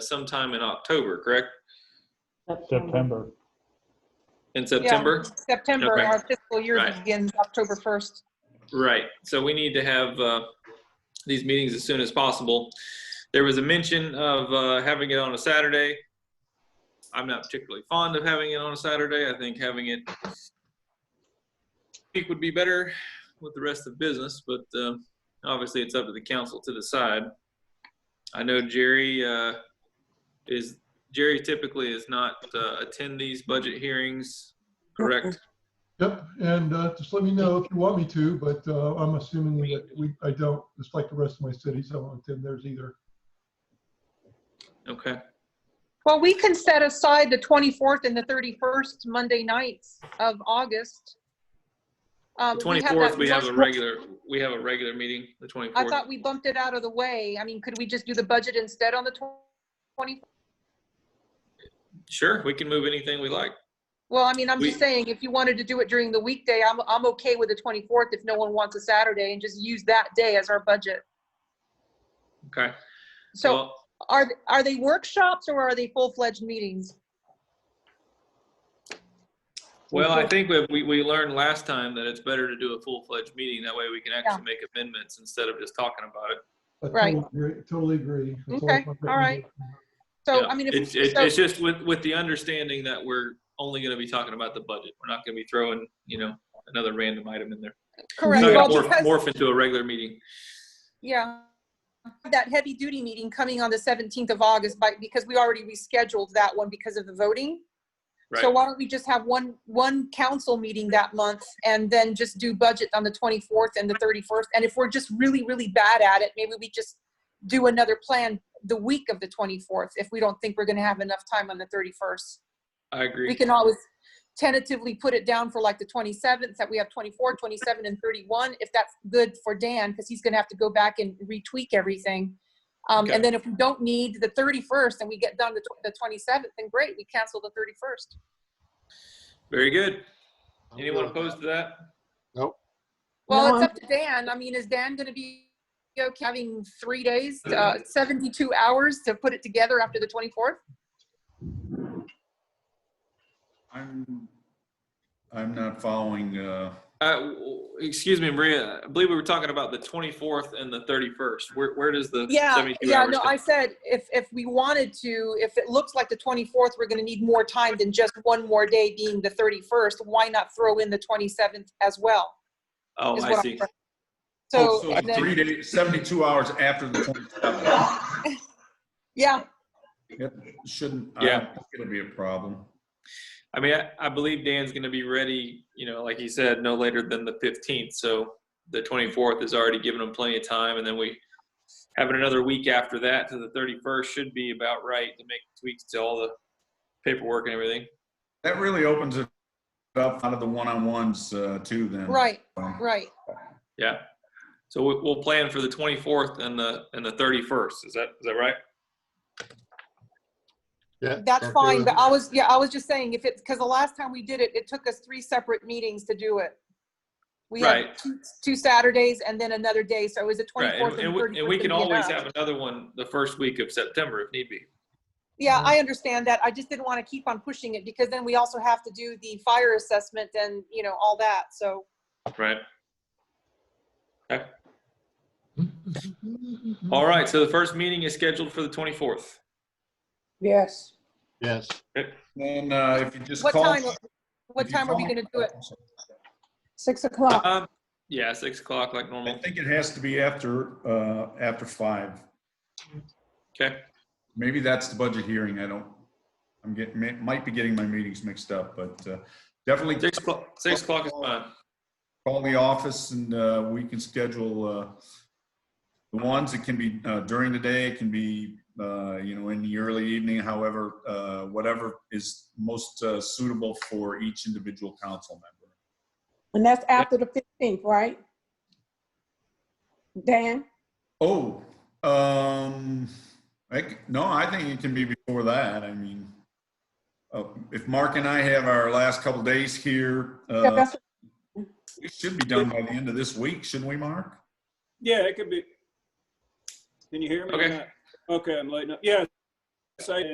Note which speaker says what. Speaker 1: sometime in October, correct?
Speaker 2: September.
Speaker 1: In
Speaker 3: Yeah,
Speaker 1: September?
Speaker 3: September,
Speaker 1: Okay.
Speaker 3: our fiscal year
Speaker 1: Right.
Speaker 3: begins October 1st.
Speaker 1: Right, so we need to have uh, these meetings as soon as possible. There was a mention of uh, having it on a Saturday. I'm not particularly fond of having it on a Saturday. I think having it week would be better with the rest of business, but uh, obviously it's up to the council to decide. I know Jerry uh, is, Jerry typically is not uh, attend these budget hearings, correct?
Speaker 4: Yep, and uh, just let me know if you want me to, but uh, I'm assuming that we, I don't, just like the rest of my cities, I won't attend theirs either.
Speaker 1: Okay.
Speaker 3: Well, we can set aside the 24th and the 31st Monday nights of August. Um,
Speaker 1: The
Speaker 3: we have
Speaker 1: twenty-fourth,
Speaker 3: that
Speaker 1: we have a
Speaker 3: one-
Speaker 1: regular, we have a regular meeting, the
Speaker 3: I
Speaker 1: twenty-fourth.
Speaker 3: thought we bumped it out of the way. I mean, could we just do the budget instead on the 20?
Speaker 1: Sure, we can move anything we like.
Speaker 3: Well, I mean, I'm
Speaker 1: We-
Speaker 3: just saying, if you wanted to do it during the weekday, I'm, I'm okay with the 24th if no one wants a Saturday and just use that day as our budget.
Speaker 1: Okay.
Speaker 3: So
Speaker 1: Well,
Speaker 3: are, are they workshops or are they full-fledged meetings?
Speaker 1: Well,
Speaker 3: Mhm.
Speaker 1: I think we- we, we learned last time that it's better to do a full-fledged meeting. That way we can actually make amendments instead of just talking about it.
Speaker 4: I
Speaker 3: Right.
Speaker 4: totally agree- Totally agree. That's
Speaker 3: Okay,
Speaker 4: I've got.
Speaker 3: all right. So,
Speaker 1: Yeah.
Speaker 3: I mean, if.
Speaker 1: It's, it's
Speaker 3: so-
Speaker 1: it's just with, with the understanding that we're only gonna be talking about the budget. We're not gonna be throwing, you know, another random item in there. It's
Speaker 3: Correct,
Speaker 1: not
Speaker 3: well,
Speaker 1: gonna morph,
Speaker 3: because,
Speaker 1: morph into a regular meeting.
Speaker 3: yeah. That heavy duty meeting coming on the 17th of August, but because we already rescheduled that one because of the voting. So
Speaker 1: Right,
Speaker 3: why don't we just have one, one council meeting that month and then just do budget on the 24th and the 31st? And if we're just really, really bad at it, maybe we just do another plan the week of the 24th if we don't think we're going to have enough time on the 31st.
Speaker 1: I
Speaker 3: we
Speaker 1: agree.
Speaker 3: can always tentatively put it down for like the 27th, that we have 24, 27, and 31, if that's good for Dan, because he's gonna have to go back and retweak everything. Um,
Speaker 1: Okay.
Speaker 3: and then if we don't need the 31st and we get done to tw- the 27th, then great, we cancel the 31st.
Speaker 1: Very good. Anyone opposed to that?
Speaker 3: Well,
Speaker 5: No,
Speaker 3: it's
Speaker 5: I'm-
Speaker 3: up to Dan. I mean, is Dan gonna be okay having three days, uh, 72 hours to put it together after the 24th?
Speaker 6: I'm, I'm not following, uh,
Speaker 1: Uh, w- w- excuse me, Maria. I believe we were talking about the 24th and the 31st. Where, where does the
Speaker 3: Yeah,
Speaker 1: 72
Speaker 3: yeah,
Speaker 1: hours
Speaker 3: no,
Speaker 1: come-
Speaker 3: I said, if, if we wanted to, if it looks like the 24th, we're gonna need more time than just one more day being the 31st, why not throw in the 27th as well?
Speaker 1: Oh,
Speaker 3: is
Speaker 1: I
Speaker 3: what I'm
Speaker 1: see.
Speaker 3: saying.
Speaker 6: oh,
Speaker 3: So,
Speaker 6: so
Speaker 3: and then,
Speaker 6: three days, 72 hours after the 27th.
Speaker 3: yeah,
Speaker 6: Shouldn't, I
Speaker 1: Yeah.
Speaker 6: don't think it'll be a problem.
Speaker 1: I mean, I, I believe Dan's going to be ready, you know, like he said, no later than the 15th. So the 24th is already giving him plenty of time. And then we having another week after that to the 31st should be about right to make tweaks to all the paperwork and everything.
Speaker 6: That really opens it up out of the one-on-ones, uh, too, then.
Speaker 3: right, right.
Speaker 1: Yeah. So we, we'll plan for the 24th and the, and the 31st. Is that, is that right?
Speaker 3: That's fine, but I was, yeah, I was just saying, if it's, because the last time we did it, it took us three separate meetings to do it. We had
Speaker 1: Right.
Speaker 3: two- two Saturdays and then another day, so it was the
Speaker 1: Right.
Speaker 3: 24th
Speaker 1: And,
Speaker 3: and
Speaker 1: and we,
Speaker 3: 31st.
Speaker 1: and we
Speaker 3: would
Speaker 1: can
Speaker 3: be
Speaker 1: always
Speaker 3: enough.
Speaker 1: have another one the first week of September if need be.
Speaker 3: Yeah,
Speaker 6: Uh,
Speaker 3: I understand that. I just didn't want to keep on pushing it because then we also have to do the fire assessment and, you know, all that. So,
Speaker 1: Right. All right. So the first meeting is scheduled for the 24th.
Speaker 5: Yes,
Speaker 7: Yes,
Speaker 6: Then, uh, if you just
Speaker 3: what
Speaker 6: call.
Speaker 3: time, what
Speaker 6: if you
Speaker 3: time are we
Speaker 6: call-
Speaker 3: going to do it?
Speaker 5: six o'clock.
Speaker 1: Um, yeah, six o'clock like
Speaker 6: I
Speaker 1: normal.
Speaker 6: think it has to be after, uh, after five.
Speaker 1: Okay.
Speaker 6: Maybe that's the budget hearing. I don't, I'm getting, may- might be getting my meetings mixed up, but, uh, definitely.
Speaker 1: Six o'clock, six o'clock is fine.
Speaker 6: call the office and uh, we can schedule uh, the ones, it can be uh, during the day, it can be, uh, you know, in the early evening, however, uh, whatever is most uh, suitable for each individual council member.
Speaker 5: And that's after the fifteenth, right? Dan,
Speaker 6: Oh, um, I c no, I think it can be before that, I mean, uh, if Mark and I have our last couple days here,
Speaker 5: Yeah,
Speaker 6: uh,
Speaker 5: that's-
Speaker 6: we should be done by the end of this week, shouldn't we, Mark?
Speaker 8: Yeah, it could be. Can you hear me? or
Speaker 1: Okay.
Speaker 8: not? Okay, I'm lighting up. Yeah, website